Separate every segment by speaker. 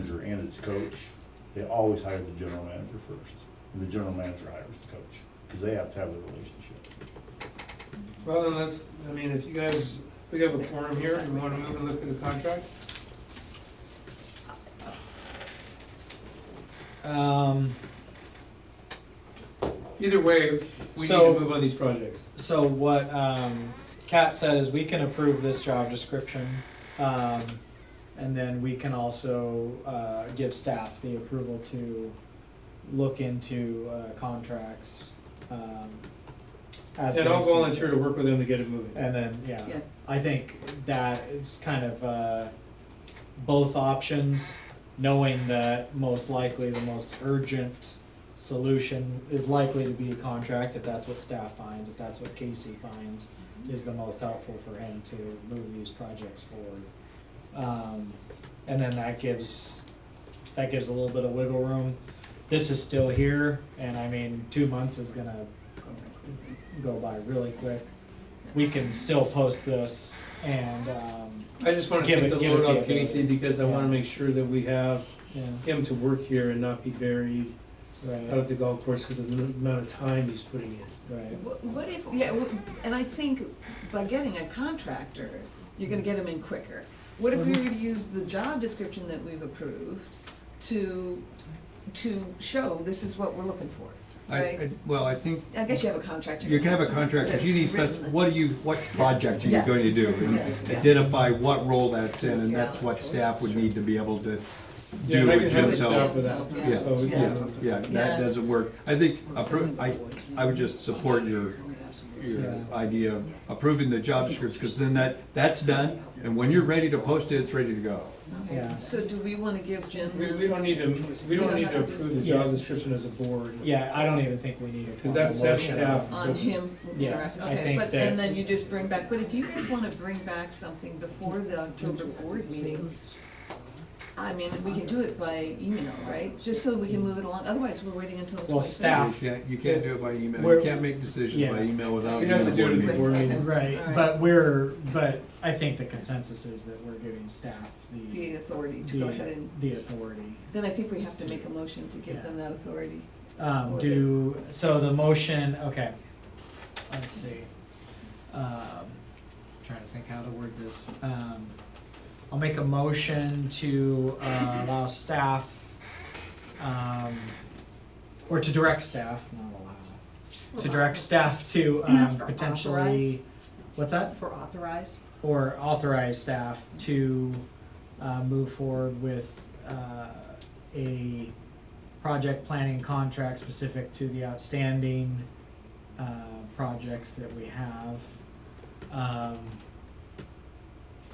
Speaker 1: it's coach, they always hire the general manager first. And the general manager hires the coach, because they have to have the relationship.
Speaker 2: Well, then let's, I mean, if you guys, we have a forum here, you wanna move and look at the contract?
Speaker 3: Um,
Speaker 2: Either way, we need
Speaker 3: So-
Speaker 2: to move on these projects.
Speaker 3: so what, um, Kat said is we can approve this job description. Um, and then we can also, uh, give staff the approval to look into, uh, contracts, um, as
Speaker 2: And I'll
Speaker 3: they see
Speaker 2: volunteer
Speaker 3: fit.
Speaker 2: to work with them to get it moving.
Speaker 3: And then, yeah,
Speaker 4: Yeah.
Speaker 3: I think that it's kind of uh, both options, knowing that most likely the most urgent solution is likely to be a contract, if that's what staff finds, if that's what Casey finds, is the most helpful for him to move these projects forward. Um, and then that gives, that gives a little bit of wiggle room. This is still here, and I mean, two months is gonna go by really quick. We can still post this and, um,
Speaker 2: I just wanna
Speaker 3: Give
Speaker 2: take
Speaker 3: it-
Speaker 2: the
Speaker 3: give it
Speaker 2: load
Speaker 3: the
Speaker 2: off
Speaker 3: ability.
Speaker 2: Casey because I wanna make sure that we have
Speaker 3: yeah,
Speaker 2: him to work here and not be buried out
Speaker 3: right,
Speaker 2: of the golf course because of the amount of time he's putting in.
Speaker 3: right.
Speaker 4: Wh- What if, yeah, wh- and I think by getting a contractor, you're gonna get them in quicker. What if we were to use the job description that we've approved to, to show this is what we're looking for,
Speaker 5: I,
Speaker 4: right?
Speaker 5: I, well, I think
Speaker 4: I guess you have a contractor.
Speaker 5: you can have a contract, but you need,
Speaker 4: That's
Speaker 5: that's,
Speaker 4: written.
Speaker 5: what do you, what project are you
Speaker 4: Yeah.
Speaker 5: going to do? And
Speaker 4: Yes, yeah.
Speaker 5: Identify what role that's in, and
Speaker 4: Yeah.
Speaker 5: that's what staff would need to be able to
Speaker 2: Yeah,
Speaker 5: do.
Speaker 2: I
Speaker 5: it
Speaker 2: can have
Speaker 4: Jim,
Speaker 2: the
Speaker 5: themselves.
Speaker 2: staff with
Speaker 4: so-
Speaker 2: us,
Speaker 4: yeah,
Speaker 2: so we
Speaker 4: yeah.
Speaker 2: can-
Speaker 5: Yeah,
Speaker 4: Yeah.
Speaker 5: that doesn't work. I think, appro- I, I would just support your, your
Speaker 3: Yeah.
Speaker 5: idea of approving the job description, because then that, that's done, and when you're ready to post it, it's ready to go.
Speaker 3: Yeah.
Speaker 4: So do we wanna give Jim?
Speaker 2: We,
Speaker 4: the-
Speaker 2: we don't need to, we don't need to approve the
Speaker 3: Yeah.
Speaker 2: job description as a board.
Speaker 3: Yeah, I don't even think we need a
Speaker 2: Because that's-
Speaker 3: formal
Speaker 2: that's
Speaker 3: motion.
Speaker 2: staff.
Speaker 4: on him,
Speaker 3: Yeah,
Speaker 4: Right,
Speaker 3: I
Speaker 4: okay,
Speaker 3: think
Speaker 4: but, and
Speaker 3: that-
Speaker 4: then you just bring back, but if you guys wanna bring back something before the October board meeting, I mean, we can do it by email, right, just so we can move it along, otherwise we're waiting until the
Speaker 3: Well,
Speaker 4: twenty-third.
Speaker 5: You
Speaker 3: Staff.
Speaker 5: can't, you can't do it by email.
Speaker 3: We're-
Speaker 5: You can't make decisions
Speaker 3: Yeah.
Speaker 5: by email without.
Speaker 2: You'd have to
Speaker 5: being
Speaker 2: do it
Speaker 5: in a
Speaker 2: at the board
Speaker 5: board
Speaker 4: Right.
Speaker 2: meeting.
Speaker 3: Right,
Speaker 4: Alright.
Speaker 3: but we're, but I think the consensus is that we're giving staff the,
Speaker 4: The authority to go ahead
Speaker 3: the,
Speaker 4: and,
Speaker 3: the authority.
Speaker 4: then I think we have to make a motion to give them that authority.
Speaker 3: Um,
Speaker 4: Or
Speaker 3: do, so the motion, okay, let's see. Um, trying to think how to word this. Um, I'll make a motion to, uh, allow staff, um, or to direct staff, not allow, to direct staff to, um,
Speaker 6: For
Speaker 3: potentially, what's that?
Speaker 6: For authorized?
Speaker 3: or authorize staff to uh, move forward with uh, a project planning contract specific to the outstanding uh, projects that we have. Um,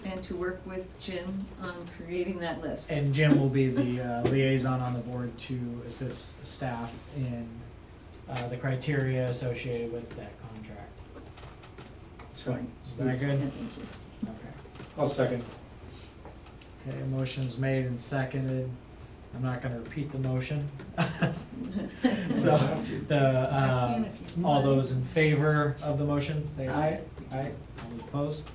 Speaker 4: And to work with Jim on creating that list.
Speaker 3: And Jim will be the uh, liaison on the board to assist staff in uh, the criteria associated with that contract.
Speaker 2: It's fine.
Speaker 3: Is that
Speaker 4: Yeah,
Speaker 3: good?
Speaker 4: thank you.
Speaker 3: Okay.
Speaker 2: I'll second.
Speaker 3: Okay, motion's made and seconded. I'm not gonna repeat the motion. So, the, um, all those in favor of the motion, say aye. Aye. All those opposed?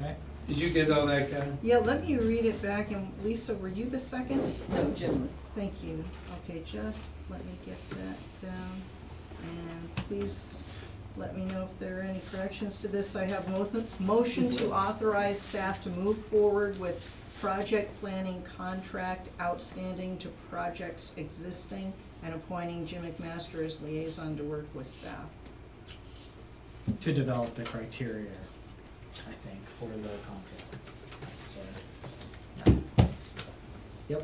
Speaker 3: Okay.
Speaker 2: Did you get all that, Kevin?
Speaker 6: Yeah, let me read it back, and Lisa, were you the second?
Speaker 4: No, Jim was,
Speaker 6: Thank you. Okay, just let me get that down. And please let me know if there are any corrections to this. I have mo- motion to authorize staff to move forward with project planning contract outstanding to projects existing and appointing Jim McMaster as liaison to work with staff.
Speaker 3: To develop the criteria, I think, for the contract. That's, uh, Yep,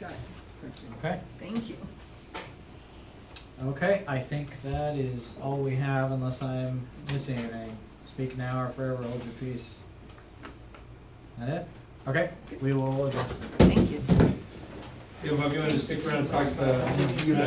Speaker 6: Got it.
Speaker 3: okay.
Speaker 4: thank you.
Speaker 3: Okay, I think that is all we have unless I'm missing anything. Speak now or forever hold your peace. That it? Okay, we will adjourn.
Speaker 4: Thank you.
Speaker 2: Yeah, Bob, you wanna stick around and talk to uh,